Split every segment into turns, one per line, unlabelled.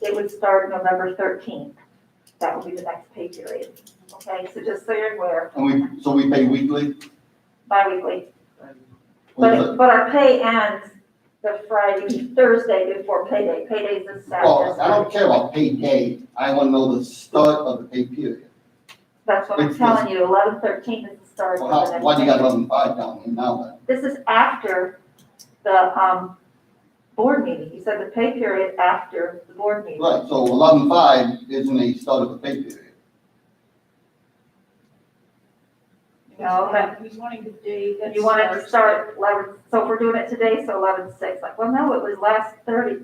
It would start November thirteenth. That would be the next pay period. Okay, so just so you're aware,
And we, so we pay weekly?
bi-weekly. But, but our pay ends the Friday, Thursday before payday. Payday's this
Well, I
Saturday.
don't care about pay day, I wanna know the start of the pay period.
That's what I'm
it's just-
telling you, eleven thirteen is the start.
Well,
of the
how,
next
why do you
pay.
got eleven five down here now then?
This is after the, um, board meeting. You said the pay period after the board meeting.
Right, so eleven five isn't a start of the pay period.
No, but-
He's wanting the day that.
You want it to start eleven, so if we're doing it today, so eleven six, like, well, no, it was last thirty,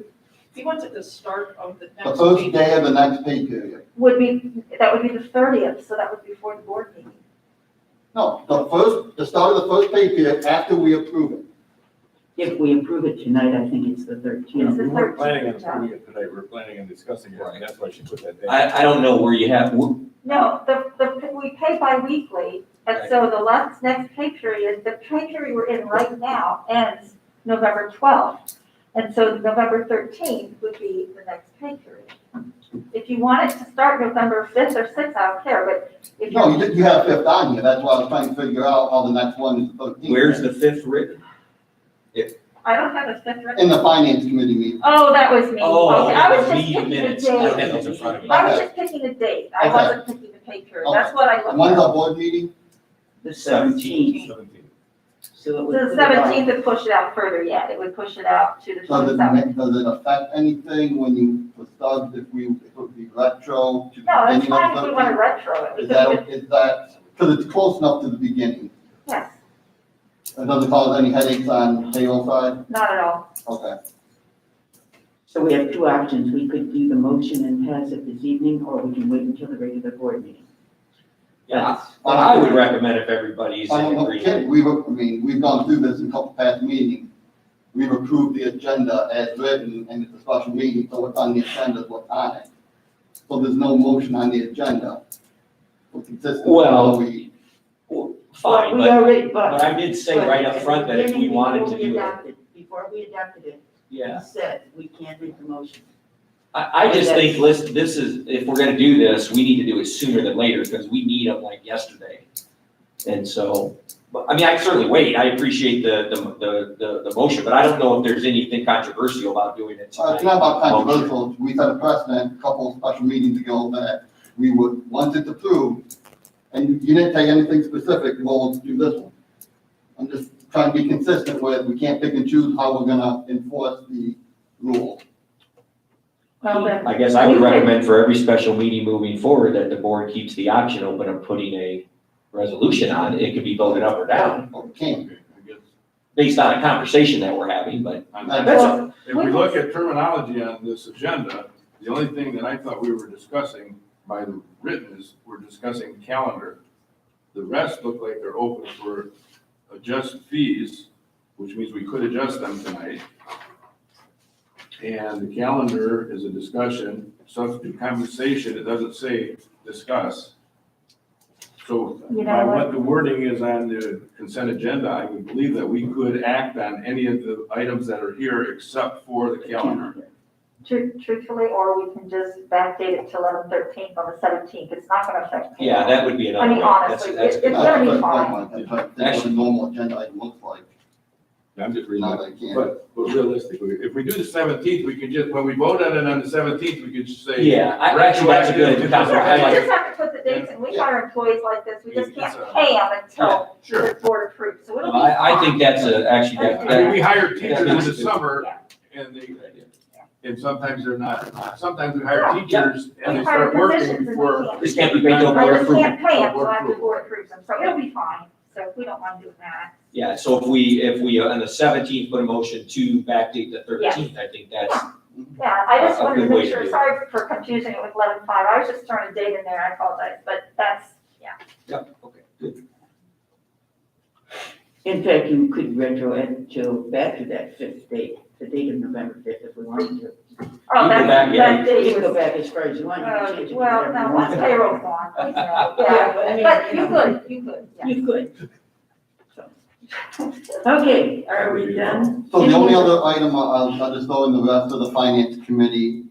He wants it the start of the next.
The first
meeting.
day of the next pay period.
would be, that would be the thirtieth, so that would be before the board meeting.
No, the first, the start of the first pay period after we approve it.
If we approve it tonight, I think it's the
It's
thirteenth.
the
We weren't planning on
thirteenth, John.
approving it today, we were planning on discussing it,
Right.
and that's why she put that date.
I, I don't know where you have, wh-
No, the, the, we pay bi-weekly, and so the last, next pay period, the pay period we're in right now ends November twelfth. And so November thirteenth would be the next pay period. If you want it to start November fifth or sixth, I don't care, but if
No,
you,
you, you have fifth on here, that's why I was trying to figure out how the next one is the thirteenth.
where's the fifth written?
I don't have a fifth written.
In the finance committee meeting.
Oh, that was me.
Oh,
Okay, I was
the
just
meeting
picking a
minutes. I don't
date.
have those in front of me.
I was just picking a date. I
Okay.
wasn't picking the pay period. That's what I
And When's
looked at.
our board meeting?
The seventeenth,
Seventeen.
so it
So
would.
The seventeenth would push it out further yet. It would push it out to the
Does it,
twenty-seventh.
ma- does it affect anything when you, the start, if we, if it would be retro to the
No, that's
beginning
fine if
of
we
the
want to
thirteenth?
retro it. We
Is
could,
that, is that, because it's close enough to the beginning,
yes,
it doesn't cause any headaches on payroll side?
not at all.
Okay.
So we have two options, we could do the motion and pass it this evening, or we can wait until the regular board meeting.
Yeah, but I would recommend if everybody's
I don't
in
know, Ken,
agreement.
Um, we've, I mean, we've gone through this in a couple past meetings. We've approved the agenda as written and it's a special meeting, so what's on the agenda is what's on it. So there's no motion on the agenda. We're consistent.
Well,
We-
Fine,
We
but,
already,
but
but.
I did say right up front that if we wanted to do it,
it. Before we adopted it, we
yeah.
said we can't make the motion.
I, I just think, listen, this is, if we're gonna do this, we need to do it sooner than later, because we need them like yesterday. And so, but, I mean, I certainly wait, I appreciate the, the, the, the, the motion, but I don't know if there's anything controversial about doing it
Uh,
tonight.
It's not about
Motion.
controversial, we set a precedent a couple of special meetings ago that we would, once it's approved, and you didn't say anything specific, well, let's do this one. I'm just trying to be consistent with, we can't pick and choose how we're gonna enforce the rule.
Well, then,
I guess I would recommend for every special meeting moving forward that the board keeps the option open of putting a resolution on. It could be voted up or down
Or we can't.
based on a conversation that we're having, but that's,
Well,
a-
If we look at terminology on this agenda, the only thing that I thought we were discussing by the written is we're discussing calendar. The rest look like they're open for adjust fees, which means we could adjust them tonight. And the calendar is a discussion, substitute compensation, it doesn't say discuss. So
You know
by
what?
what the wording is on the consent agenda, I would believe that we could act on any of the items that are here except for the calendar.
tru- truthfully, or we can just backdate it to eleven thirteenth on the seventeenth. It's not going to affect. me.
yeah, that would be
I
another
mean,
way. That's,
honestly,
that's
it-
good.
it's gonna be
That's what I
fine.
want, that's what- that's what a normal agenda item looks like,
I'm just
now that I can't.
But, but realistically, if we do the seventeenth, we could just, when we vote on it on the seventeenth, we could just say.
Yeah, I, actually, that's a
Retroactive
good
to
That's all
comment. I
right. We
like,
just have to put the dates, and we hire employees like this. We just can't pay them
Yeah,
until
Sure.
the board approves, so it'll be fine.
I, I think that's a, actually, that,
I mean,
that,
we hire teachers in
Yeah.
the summer and they, and sometimes they're not, sometimes we hire teachers and they
We hire
start working
physicians and we
before.
can't-
this can't be paid over
I
board
just can't
approval.
pay them until
Board
after the
approval.
board approves them, so it'll be fine. So we don't want to do that.
Yeah, so if we, if we, uh, on the seventeenth, put a motion to backdate the thirteenth, I think that's,
Yeah, I just
A- a
wanted to
good way
make
to
sure,
do it.
sorry for confusing it with eleven five, I was just throwing a date in there, I apologize, but that's, yeah.
yep, okay, good.
In fact, you could retro it to back to that fifth date, the date of November fifth, if we wanted to.
Oh,
You go
that,
back, yeah.
that
You
date
can go
was,
back as far as you want, you can
uh,
change it.
well,
whatever you
no,
want.
once payroll's gone, please, no, yeah.
Yeah, but I mean,
But you
know,
could, you could, yeah.
You could. So. Okay, are we done?
So the only other item I'll, I'll just throw in the rest of the finance committee